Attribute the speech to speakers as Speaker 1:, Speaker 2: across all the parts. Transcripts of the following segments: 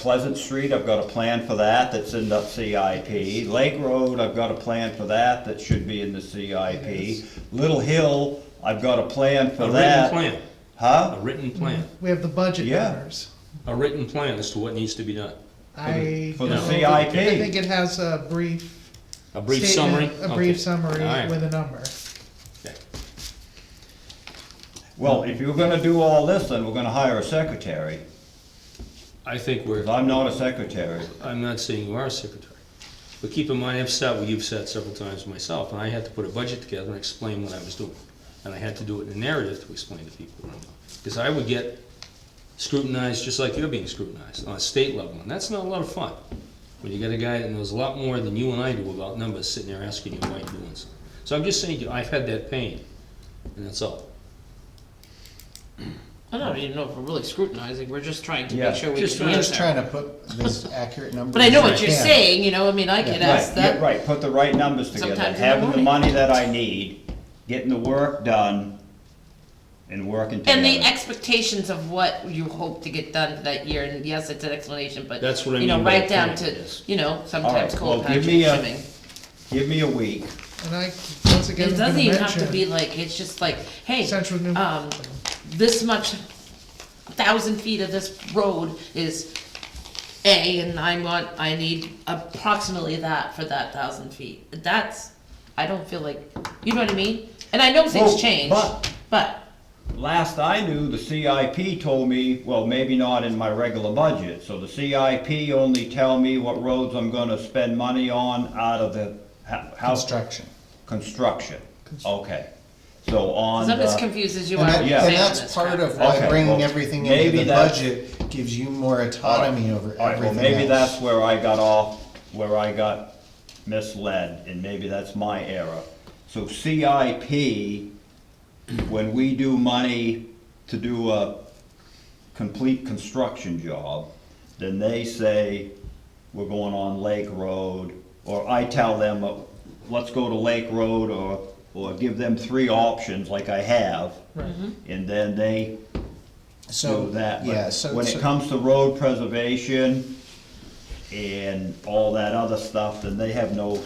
Speaker 1: Pleasant Street, I've got a plan for that, that's in the CIP. Lake Road, I've got a plan for that, that should be in the CIP. Little Hill, I've got a plan
Speaker 2: A
Speaker 1: for
Speaker 2: written
Speaker 1: that.
Speaker 2: plan,
Speaker 1: Huh?
Speaker 2: a written plan,
Speaker 3: We have the budget
Speaker 1: Yeah.
Speaker 3: numbers.
Speaker 2: a written plan as to what needs to be done.
Speaker 3: I.
Speaker 1: for the
Speaker 3: don't-
Speaker 1: CIP.
Speaker 3: I think it has a brief.
Speaker 2: A brief summary?
Speaker 3: statement, A brief
Speaker 2: Okay.
Speaker 3: summary
Speaker 2: All right.
Speaker 3: with a number.
Speaker 1: Well, if you're gonna do all this, then we're gonna hire a secretary,
Speaker 2: I think we're,
Speaker 1: 'cause I'm not a secretary.
Speaker 2: I'm not saying you are a secretary. But keep in mind, I've sat where you've sat several times myself, and I had to put a budget together and explain what I was doing. And I had to do it in a narrative to explain to people what I'm doing. Because I would get scrutinized just like you're being scrutinized on a state level, and that's not a lot of fun. When you got a guy that knows a lot more than you and I do about numbers sitting there asking you why you're doing something. So I'm just saying, to you, I've had that pain, and that's all.
Speaker 4: I don't even know if we're really scrutinizing, we're just trying to
Speaker 1: Yeah,
Speaker 4: make sure we
Speaker 2: just
Speaker 4: can
Speaker 2: trying-
Speaker 5: Just
Speaker 4: answer.
Speaker 5: trying to put these accurate numbers.
Speaker 4: But I know
Speaker 5: as
Speaker 4: what
Speaker 5: we
Speaker 4: you're
Speaker 5: can.
Speaker 4: saying, you know, I mean, I get asked
Speaker 1: Right, yeah,
Speaker 4: that.
Speaker 1: Right, put the right numbers together,
Speaker 4: Sometimes in the
Speaker 1: having the
Speaker 4: morning.
Speaker 1: money that I need, getting the work done, and working together.
Speaker 4: And the expectations of what you hope to get done for that year, and yes, it's an explanation, but,
Speaker 2: That's what I
Speaker 4: you know,
Speaker 2: mean by
Speaker 4: right down
Speaker 2: plan,
Speaker 4: to,
Speaker 2: yes.
Speaker 4: you know, sometimes
Speaker 1: well,
Speaker 4: cold
Speaker 1: give
Speaker 4: patch
Speaker 1: me a-
Speaker 4: and shimming.
Speaker 1: Give me a week,
Speaker 3: And I, once again,
Speaker 4: It
Speaker 3: I'm gonna
Speaker 4: doesn't even have to
Speaker 3: mention-
Speaker 4: be like, it's just like, hey,
Speaker 3: Central New-
Speaker 4: um, this much, thousand feet of this road is A, and I want, I need approximately that for that thousand feet. That's, I don't feel like, you know what I mean? And I know
Speaker 1: Well,
Speaker 4: things change,
Speaker 1: but-
Speaker 4: but,
Speaker 1: Last I knew, the CIP told me, well, maybe not in my regular budget, so the CIP only tell me what roads I'm gonna spend money on out of the ho- house
Speaker 5: Construction.
Speaker 1: construction, okay. So on
Speaker 4: cause I'm as
Speaker 1: the,
Speaker 4: confused as you are.
Speaker 5: And that-
Speaker 4: with
Speaker 1: yeah.
Speaker 5: and
Speaker 4: saying
Speaker 5: that's
Speaker 4: this
Speaker 5: part
Speaker 4: crap.
Speaker 5: of why
Speaker 1: Okay, well,
Speaker 5: bringing everything
Speaker 1: maybe
Speaker 5: into the
Speaker 1: that's-
Speaker 5: budget gives you more autonomy over
Speaker 1: all right, well,
Speaker 5: everything
Speaker 1: maybe that's
Speaker 5: else.
Speaker 1: where I got off, where I got misled, and maybe that's my error. So CIP, when we do money to do a complete construction job, then they say, we're going on Lake Road, or I tell them, uh, let's go to Lake Road, or, or give them three options like I have.
Speaker 3: Right.
Speaker 1: And then they
Speaker 5: So
Speaker 1: do that. but
Speaker 5: Yeah, so.
Speaker 1: When
Speaker 5: so-
Speaker 1: it comes to road preservation and all that other stuff, then they have no,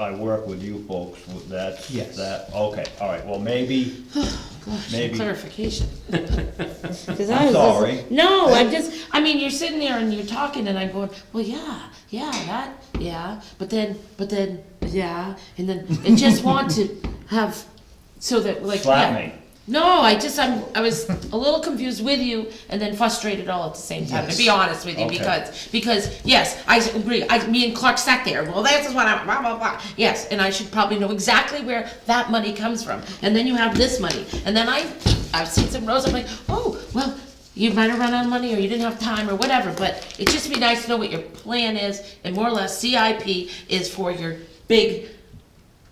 Speaker 1: I work with you folks with that.
Speaker 5: Yes.
Speaker 1: That, okay, all right, well, maybe, maybe,
Speaker 4: Clarification.
Speaker 6: Because
Speaker 1: I'm
Speaker 6: I was
Speaker 1: sorry.
Speaker 6: listening-
Speaker 4: No, I'm just, I mean, you're sitting there and you're talking and I'm going, well, yeah, yeah, that, yeah, but then, but then, yeah, and then, and just want to have, so that, like,
Speaker 1: Slap
Speaker 4: yeah.
Speaker 1: me.
Speaker 4: No, I just, I'm, I was a little confused with you and then frustrated all at the same time, to be honest with you,
Speaker 1: Okay.
Speaker 4: because, because, yes, I agree, I, me and Clark sat there, well, this is what I'm, blah, blah, blah, yes, and I should probably know exactly where that money comes from, and then you have this money, and then I, I've seen some rows, I'm like, oh, well, you might have run out of money, or you didn't have time, or whatever, but it'd just be nice to know what your plan is, and more or less CIP is for your big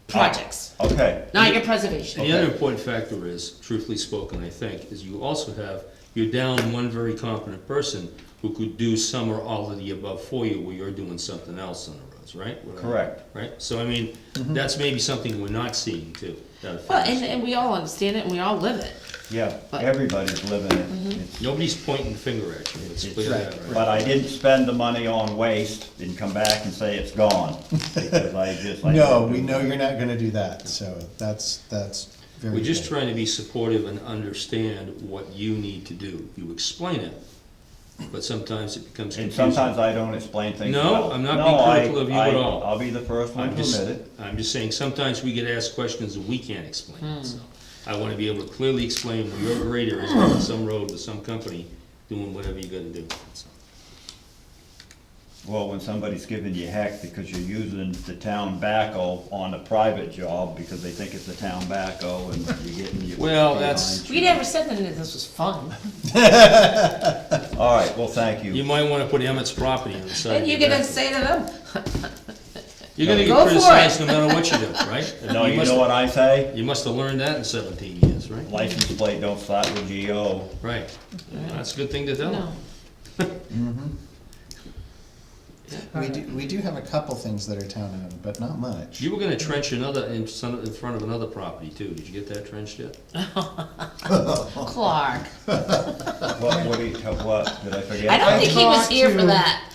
Speaker 4: projects,
Speaker 1: okay.
Speaker 4: not your preservation.
Speaker 2: And the other important factor is, truthfully spoken, I think, is you also have, you're down one very competent person who could do some or all of the above for you where you're doing something else on the roads, right? What I-
Speaker 1: Correct. Mm-hmm.
Speaker 2: Right, so I mean, that's maybe something we're not seeing too. that
Speaker 4: Well,
Speaker 2: affects-
Speaker 4: and, and we all understand it and we all live it.
Speaker 1: Yeah,
Speaker 4: But-
Speaker 1: everybody's living it. It's-
Speaker 2: Nobody's pointing the finger at you, let's
Speaker 1: it's-
Speaker 2: clear that, right?
Speaker 1: But I didn't spend the money on waste and come back and say it's gone, because I just. I
Speaker 5: No,
Speaker 1: didn't
Speaker 5: we
Speaker 1: do
Speaker 5: know
Speaker 1: that.
Speaker 5: you're not gonna do that, so that's, that's very.
Speaker 2: We're just
Speaker 5: good.
Speaker 2: trying to be supportive and understand what you need to do. You explain it, but sometimes it becomes
Speaker 1: And
Speaker 2: confusing.
Speaker 1: sometimes I don't explain things
Speaker 2: No,
Speaker 1: well.
Speaker 2: I'm not
Speaker 1: No,
Speaker 2: being
Speaker 1: I-
Speaker 2: critical of you at
Speaker 1: I-
Speaker 2: all.
Speaker 1: I'll be the first one
Speaker 2: I'm
Speaker 1: to
Speaker 2: just,
Speaker 1: admit it.
Speaker 2: I'm just saying, sometimes we get asked questions that we can't
Speaker 4: Hmm.
Speaker 2: explain, so. I wanna be able to clearly explain where your grader is on some road with some company doing whatever you gotta do, so.
Speaker 1: Well, when somebody's giving you heck because you're using the town backhoe on a private job because they think it's the town backhoe and you're getting your.
Speaker 2: Well, that's-
Speaker 1: behind
Speaker 4: We
Speaker 1: you.
Speaker 4: never said that this was fun.
Speaker 1: All right, well, thank
Speaker 2: You
Speaker 1: you.
Speaker 2: might wanna put Emmett's property on the side
Speaker 4: And
Speaker 2: of
Speaker 4: you're
Speaker 2: your
Speaker 4: gonna
Speaker 2: back.
Speaker 4: say to them,
Speaker 2: You're gonna
Speaker 4: Go
Speaker 2: get
Speaker 4: for
Speaker 2: criticized no matter what you do, right?
Speaker 1: No, you
Speaker 2: must-
Speaker 1: know what I say?
Speaker 2: You must've learned that in seventeen years, right?
Speaker 1: License plate don't start with GO.
Speaker 2: Right, that's a good thing to tell them.
Speaker 4: no.
Speaker 5: We do, we do have a couple things that are town-owned, but not much.
Speaker 2: You were gonna trench another, in some, in front of another property too, did you get that trenched yet?
Speaker 4: Clark.
Speaker 1: What, what do you, what, did I forget?
Speaker 4: I don't think he was
Speaker 3: talked
Speaker 4: here for
Speaker 3: to-
Speaker 4: that.